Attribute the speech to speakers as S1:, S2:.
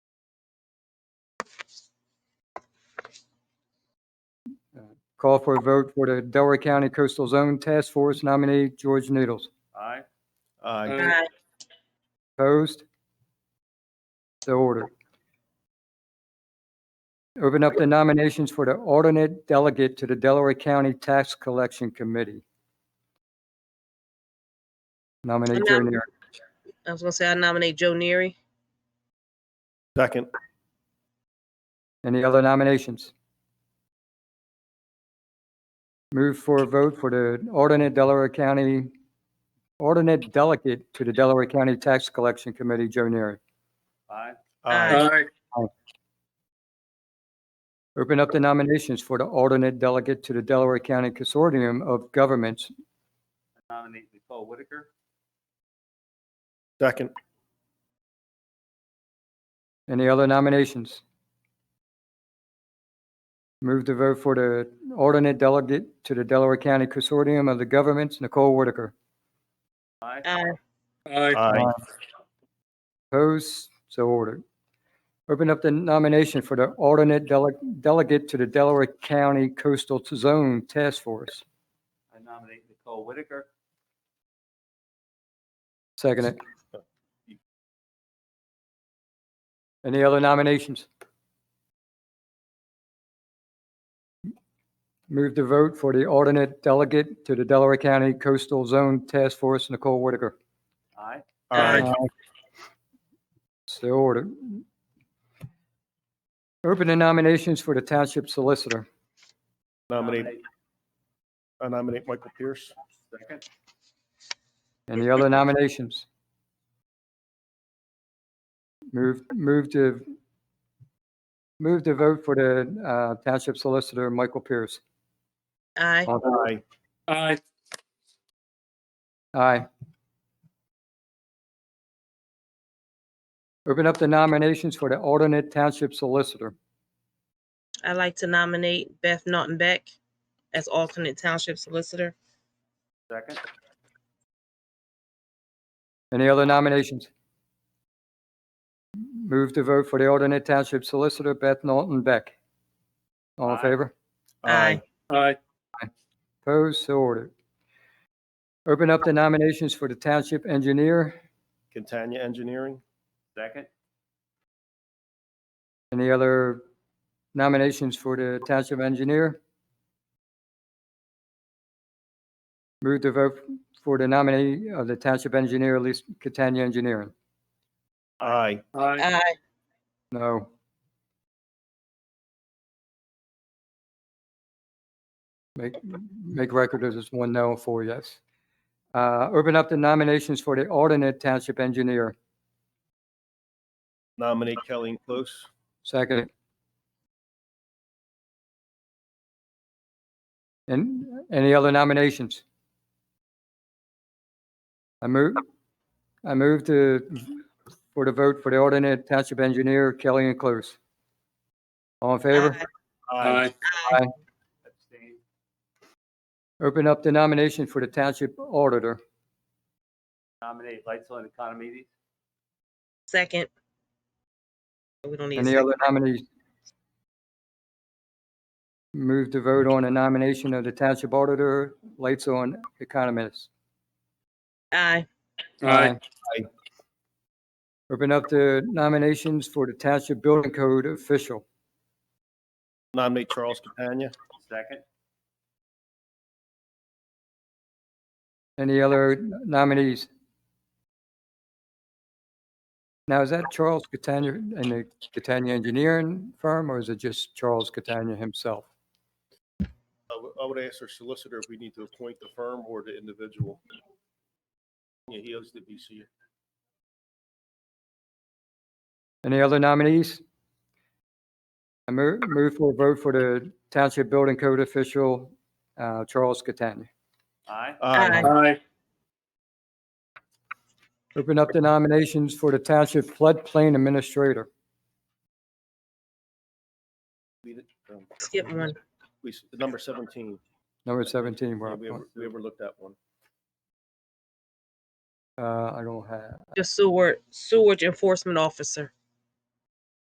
S1: Call for a vote for the Delaware County Coastal Zone Task Force nominee George Needles.
S2: Aye.
S3: Aye.
S4: Aye.
S1: Opposed? So ordered. Open up the nominations for the alternate delegate to the Delaware County Tax Collection Committee. Nominate Joe Neary.
S4: I was gonna say I nominate Joe Neary.
S3: Second.
S1: Any other nominations? Move for a vote for the alternate Delaware County, alternate delegate to the Delaware County Tax Collection Committee, Joe Neary.
S2: Aye.
S4: Aye.
S1: Open up the nominations for the alternate delegate to the Delaware County Consortium of Governments.
S2: Nominate Nicole Whitaker.
S3: Second.
S1: Any other nominations? Move to vote for the alternate delegate to the Delaware County Consortium of the Governments, Nicole Whitaker.
S2: Aye.
S4: Aye.
S3: Aye.
S1: Opposed? So ordered. Open up the nomination for the alternate dele- delegate to the Delaware County Coastal Zone Task Force.
S2: I nominate Nicole Whitaker.
S1: Second it. Any other nominations? Move to vote for the alternate delegate to the Delaware County Coastal Zone Task Force, Nicole Whitaker.
S2: Aye.
S3: Aye.
S1: Aye. So ordered. Open the nominations for the Township Solicitor.
S3: Nominate, I nominate Michael Pierce.
S2: Second.
S1: Any other nominations? Move, move to, move to vote for the uh, Township Solicitor, Michael Pierce.
S4: Aye.
S3: Aye.
S5: Aye.
S1: Aye. Open up the nominations for the alternate Township Solicitor.
S4: I'd like to nominate Beth Naughton Beck as alternate township solicitor.
S2: Second.
S1: Any other nominations? Move to vote for the alternate Township Solicitor, Beth Norton Beck. All in
S2: Aye.
S1: favor?
S4: Aye.
S5: Aye.
S1: Opposed, so ordered. Open up the nominations for the Township Engineer.
S3: Catania Engineering.
S2: Second.
S1: Any other nominations for the Township Engineer? Move to vote for the nominee of the Township Engineer, Elise Catania Engineering.
S3: Aye.
S5: Aye.
S4: Aye.
S1: No. Make, make record of this one no, and four yes. Uh, Open up the nominations for the alternate Township Engineer.
S3: Nominate Kelly Close.
S1: Second. And any other nominations? I move, I move to, for the vote for the alternate township engineer, Kelly and Close. All in favor?
S4: Aye.
S5: Aye.
S2: Abstain.
S1: Open up the nomination for the township auditor.
S2: Nominate Lightsville and Economy.
S4: Second. We don't need a
S1: Any
S4: second.
S1: other nominees? Move to vote on a nomination of the township auditor, lights on economist.
S4: Aye.
S5: Aye.
S3: Aye.
S1: Uh, Open up the nominations for the Township Building Code official.
S3: Nominate Charles Catania.
S2: Second.
S1: Any other nominees? Now, is that Charles Catania and the Catania Engineering Firm, or is it just Charles Catania himself?
S3: I would- I would ask our solicitor if we need to appoint the firm or the individual. Yeah, he owes the BC.
S1: Any other nominees? I mo- move for a vote for the Township Building Code official, uh, Charles Catania.
S2: Aye.
S4: Aye.
S5: Aye.
S1: Open up the nominations for the Township Floodplain Administrator.
S3: We did- um,
S4: Skip one.
S3: We, s- number 17,
S1: Number 17,
S3: Yeah,
S1: Rob.
S3: we over- we overlooked that one.
S1: Uh, I don't have. 呃
S4: The Seward, Seward Enforcement Officer.